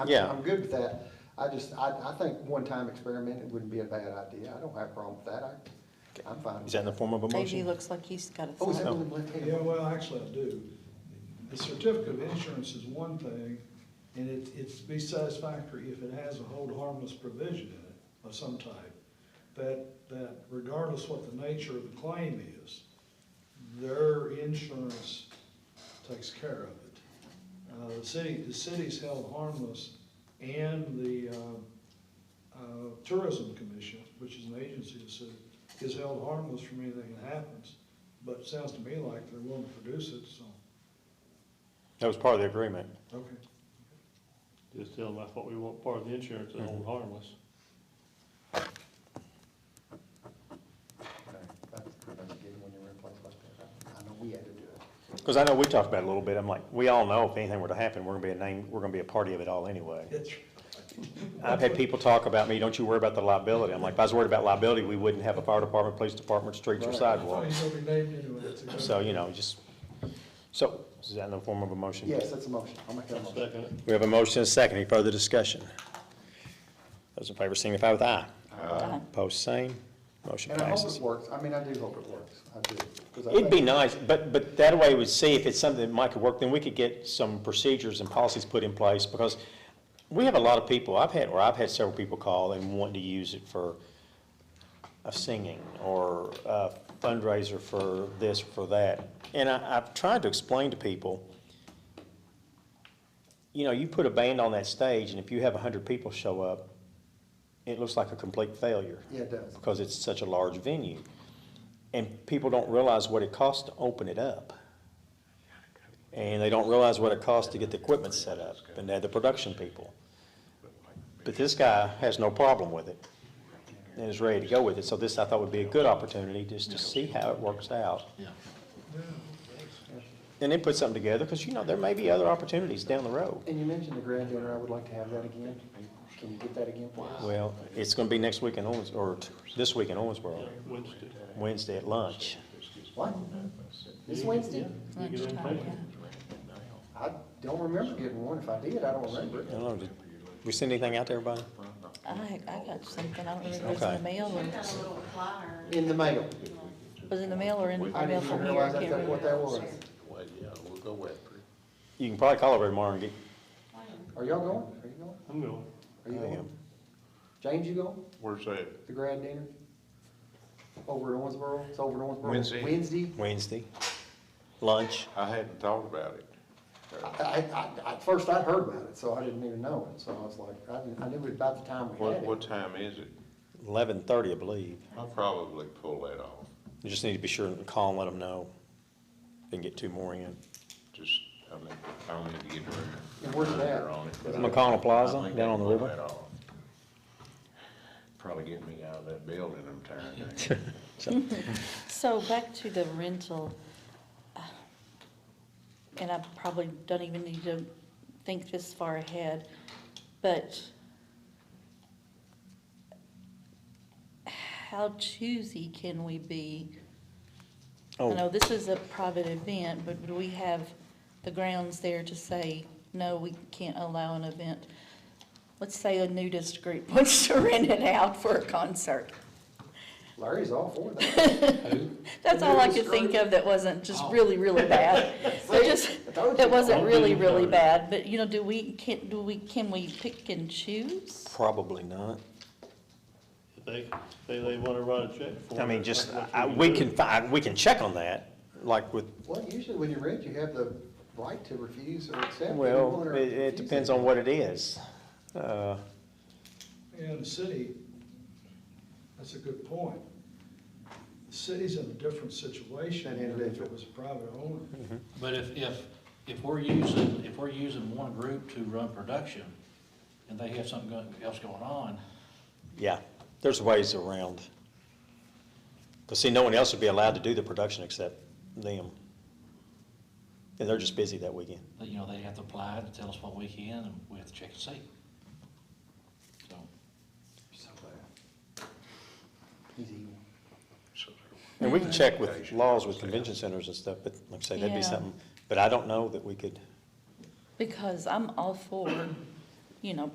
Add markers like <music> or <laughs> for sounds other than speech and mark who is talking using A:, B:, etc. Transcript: A: I'm-
B: Yeah.
A: I'm good with that. I just, I, I think one-time experiment, it wouldn't be a bad idea. I don't have a problem with that. I, I'm fine.
B: Is that in the form of a
C: Davey
B: motion?
C: looks like he's got a
A: Oh, is
C: thought.
A: that one of them left-handed?
D: Yeah, well, actually, I do. The certificate of insurance is one thing, and it, it's be satisfactory if it has a hold harmless provision in it of some type. That, that regardless what the nature of the claim is, their insurance takes care of it. Uh, the city, the city's held harmless, and the, uh, uh, Tourism Commission, which is an agency of the city, is held harmless from anything that happens. But it sounds to me like they're willing to produce it, so,
B: That was part of the agreement.
D: okay.
E: Just tell them that's what we want, part of the insurance, and
B: Mm-hmm.
E: hold harmless.
A: Okay, That's pretty much good when you're in a place like that. I know we had to do it.
B: Because I know we talked about it a little bit. I'm like, we all know if anything were to happen, we're gonna be a name, we're gonna be a party of it all anyway.
D: It's,
B: I've had people talk about me, don't you worry about the liability. I'm like, if I was worried about liability, we wouldn't have a fire department, police department, streets or
A: Right.
B: sidewalks.
D: it's gonna be named anyway, it's a good-
B: So, you know, just, so, is that in the form of a motion?
A: Yes, that's a motion. I'll make that a motion.
E: Second,
B: We have a motion and a second. Any further discussion? Those in favor signify with aye.
C: Aye.
B: Opposed, same. Motion
A: And I hope
B: passes.
A: it works. I mean, I do hope it works. I do. 'Cause I
B: It'd be
A: think-
B: nice, but, but that way we'd see if it's something that might could work, then we could get some procedures and policies put in place, because we have a lot of people, I've had, or I've had several people call and want to use it for a singing, or a fundraiser for this, for that. And I, I've tried to explain to people, you know, you put a band on that stage, and if you have a hundred people show up, it looks like a complete failure
A: Yeah, it does.
B: because it's such a large venue. And people don't realize what it costs to open it up. And they don't realize what it costs to get the equipment set up and to have the production people. But this guy has no problem with it and is ready to go with it. So this, I thought, would be a good opportunity just to see how it works out. And then put something together, because you know, there may be other opportunities down the road.
A: And you mentioned the grand dinner. I would like to have that again. Can you get that again, please?
B: Well, it's gonna be next week in Owens, or t- this week in Owensboro,
E: Wednesday.
B: Wednesday at lunch.
A: What? This Wednesday?
E: You get on
C: Lunchtime,
E: paper.
A: I don't remember getting one. If I did, I don't remember.
B: I don't know, did we send anything out to everybody?
C: I, I got something, I don't remember, if it was in
B: Okay.
C: the mail
F: Got
C: or,
F: a little flyer.
A: In the mail.
C: was it in the mail or in
A: I
C: the mail
A: didn't even
C: from here, I
A: realize
C: can't
A: that's what that
C: remember.
A: was.
G: Well, yeah, we'll go with it.
B: You can probably call over tomorrow and get,
A: Are y'all going? Are you going?
E: I'm going.
A: Are you
B: I am.
A: going? James, you going?
G: Where's that?
A: The grand dinner? Over in Owensboro? It's over in Owensboro?
G: Wednesday.
A: Wednesday?
B: Wednesday, lunch.
G: I hadn't thought about it.
A: I, I, I, at first I'd heard about it, so I didn't even know it, so I was like, I didn't, I knew it about the time we
G: What,
A: had
G: what
A: it.
G: time is it?
B: Eleven thirty, I believe.
G: I'll probably pull that off.
B: You just need to be sure and call and let them know. Then get two more in.
G: Just, I mean, I don't need to get a.
A: And where's it at?
G: calendar on it, but I-
B: McConnell Plaza,
G: I think
B: down on the
G: I'll
B: river.
G: pull that off. Probably get me out of that building, I'm tired.
C: So back to the rental, uh, and I probably don't even need to think this far ahead, but how choosy can we be? I know
B: Oh,
C: this is a private event, but do we have the grounds there to say, no, we can't allow an event? Let's say a nudist group <laughs> wants to rent it out for a concert.
A: Larry's all for that.
C: That's all I
A: Nudist
C: could think
A: group?
C: of that wasn't just
E: Oh.
C: really,
E: <laughs>
C: really bad. It just,
A: I told
C: it
A: you.
C: wasn't
E: Don't
C: really,
E: do it.
C: really bad, but you know, do we, can, do we, can we pick and choose?
B: probably not.
E: If they, if they, they wanna write a check for it.
B: I mean, just,
E: that's what
B: I,
E: we
B: we
E: do.
B: can find, we can check on that, like with,
A: Well, usually when you rent, you have the right to refuse or accept.
B: well, it, it depends on what it is. Uh,
D: And the city, that's a good point. The city's in a different situation
A: Than
D: than if
A: individual.
D: it was a private owner.
H: But if, if, if we're using, if we're using one group to run production, and they have something go- else going on,
B: yeah, there's ways around. Cause see, no one else would be allowed to do the production except them. And they're just busy that weekend.
H: that, you know, they have to apply to tell us what we can, and we have to check and see. So,
A: He's evil.
B: And we can check with laws with convention centers and stuff, but like I say, that'd be
C: Yeah.
B: something, but I don't know that we could,
C: Because I'm all for you know,